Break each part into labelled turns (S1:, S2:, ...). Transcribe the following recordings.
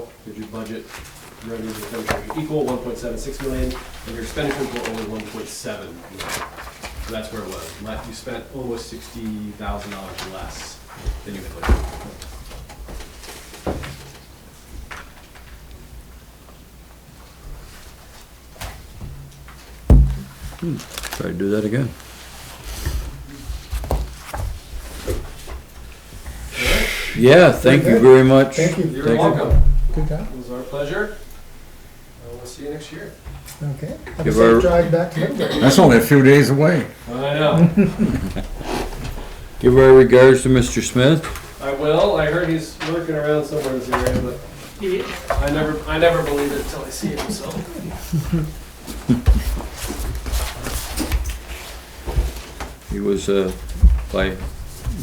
S1: because your budget revenues and expenditures are equal, one point seven six million, and your expenditures were only one point seven million. So that's where it was. Le- You spent almost sixty thousand dollars less than you had budgeted.
S2: Try to do that again. Yeah, thank you very much.
S3: Thank you.
S1: You're
S2: Thank
S1: welcome.
S3: Good job.
S1: It was our pleasure. Uh, We'll see you next year.
S3: Okay. Have a
S2: Give
S3: safe
S2: her-
S3: drive back to Middlebury.
S4: That's only a few days away.
S1: I know.
S2: Give our regards to Mr. Smith.
S1: I will. I heard he's lurking around somewhere in this area, but he, I never, I never believe it until I see him, so.
S2: He was, uh, by,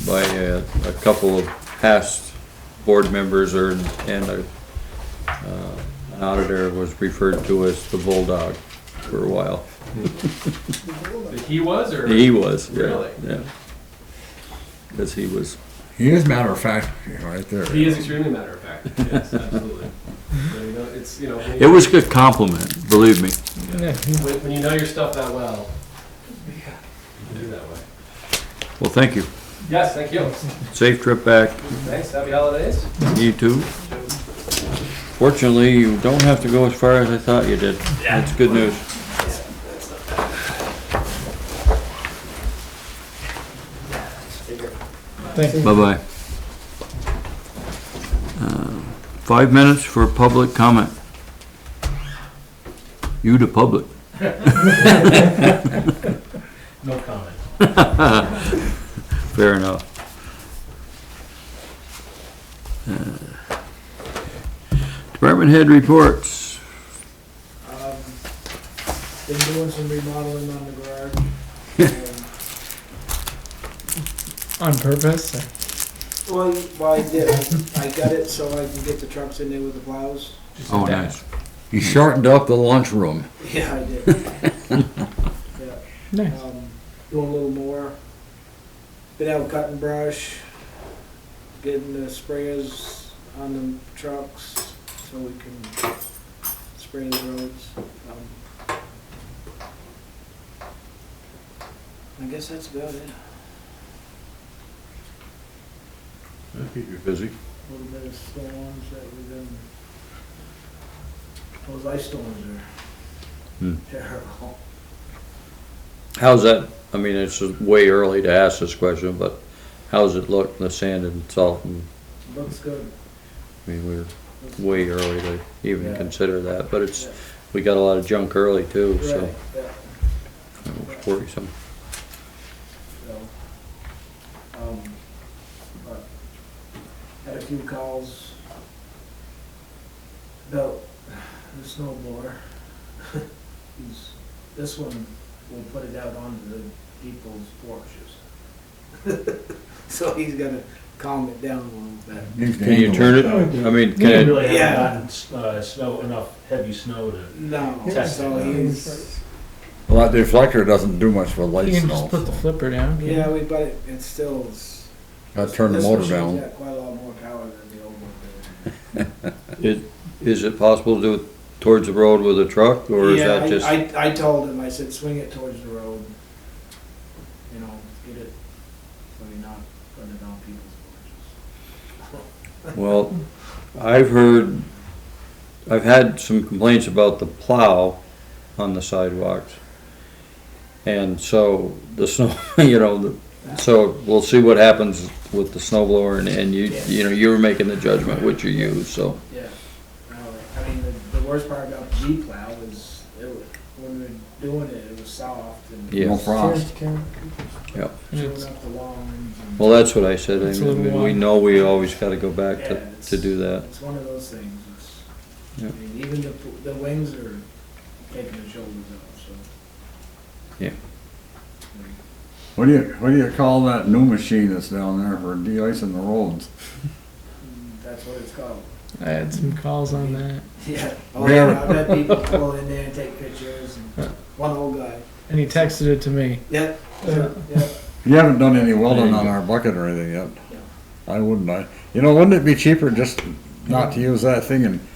S2: by uh, a couple of past board members or, and a, uh, an auditor was referred to as the bulldog for a while.
S1: That He was, or?
S2: He was, yeah,
S1: Really?
S2: yeah. Cause he was,
S4: He is matter of fact, right there.
S1: He is extremely matter of fact. Yes, absolutely. So, you know, it's, you know, when
S2: it
S1: you,
S2: was a good compliment, believe me.
S1: when, when you know your stuff that well, you do it that way.
S2: Well, thank you.
S1: Yes, thank you.
S2: Safe trip back.
S1: Thanks. Happy holidays.
S2: You too. Fortunately, you don't have to go as far as I thought you did. That's good news.
S3: Thank you.
S2: Bye-bye. Uh, Five minutes for public comment. You to public.
S1: No comment.
S2: Fair enough. Uh, Department head reports.
S5: Um, Been doing some remodeling on the garage. Um, and-
S3: On purpose.
S5: Well, well, I did, I- I got it so I can get the trucks in there with the plows.
S2: Oh, nice.
S4: He shortened up the lunchroom.
S5: Yeah, I did.
S3: Nice.
S5: Um, Doing a little more. Been out cutting brush, getting the sprayers on the trucks so we can spray the roads. Um, I guess that's about it.
S2: You're busy.
S5: little bit of storms that we've been, those ice storms
S2: Hmm.
S5: are terrible.
S2: How's that, I mean, it's way early to ask this question, but how's it look, the sand and salt and
S5: Looks good.
S2: I mean, we're way early to even
S5: Yeah.
S2: consider that, but it's,
S5: Yeah.
S2: we got a lot of junk early too, so
S5: Right, yeah,
S2: it was worrisome.
S5: so, um, but had a few calls about the snow blower. He's- This one, will put it out onto the people's porches. So he's gotta calm it down a little bit.
S2: Can you turn it, I mean,
S3: Yeah.
S2: can it,
S6: really
S5: Yeah.
S6: haven't gotten, uh, snow, enough heavy snow to.
S5: No,
S6: Test it
S5: so
S6: out.
S5: he's,
S4: Well, that deflector doesn't do much for
S3: You
S4: light
S3: can just
S4: snow.
S3: put the flipper down. can't you?
S5: Yeah, we, but it, it still is.
S4: I turned the
S5: this
S4: motor
S5: machine's
S4: down.
S5: got Quite a lot more power than the old one did.
S2: is, is it possible to do it towards the road with a truck, or is
S5: Yeah,
S2: that
S5: I-
S2: just?
S5: I, I told him, I said, swing it towards the road, you know, get it, so you're not putting it on people's
S2: Well, I've heard, I've had some complaints about the plow on the sidewalks. And so the snow, you know, the- so we'll see what happens with the snow blower and, and you, you know, you were making the judgment which you use, so.
S5: porches. Yeah. No, I mean, the, the worst part about the G plow is, it, wa- when we were doing it, it was soft and.
S2: Yeah.
S4: No frost.
S5: Chewing up the lawns and.
S2: Well, that's what I said.
S3: It's
S2: I
S3: a little
S2: mean, we
S3: long.
S2: know we always gotta go back
S5: Yeah,
S2: to,
S5: it's-
S2: to do that.
S5: It's one of those things, it's, I
S2: Yeah.
S5: mean, even the, the wings are taking the shoulders off, so.
S2: Yeah.
S4: What do you, what do you call that new machine that's down there for de-icing the roads?
S5: Mm, That's what it's called.
S3: I had some calls on that.
S5: Yeah. Oh,
S4: Really?
S5: yeah, I bet people go in there and take pictures, and one old guy,
S3: And he texted it to me.
S5: yep,
S3: Yeah.
S5: yep,
S4: You haven't done any welding
S2: you
S4: on
S2: go.
S4: our bucket or anything yet. I wouldn't, I, you know, wouldn't it be cheaper just not to use that thing and